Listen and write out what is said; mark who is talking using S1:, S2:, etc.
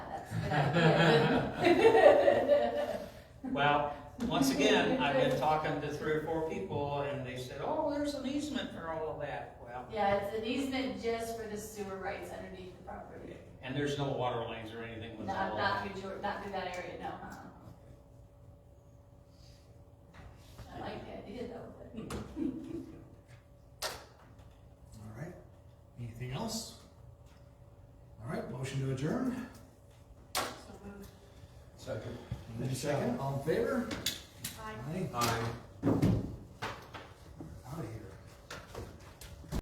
S1: Well, once again, I've been talking to three or four people and they said, oh, there's an easement for all of that. Well,
S2: Yeah, it's an easement just for the sewer rights underneath the property.
S1: and there's no water lines or anything with all
S2: Not,
S1: of
S2: not
S1: that.
S2: through George, not through that area, no, uh-uh. I like the idea though, but
S3: All right, anything else? All right, motion to adjourn,
S2: so moved.
S4: Second.
S1: uh,
S3: Any second, all in favor? Aye.
S4: Aye.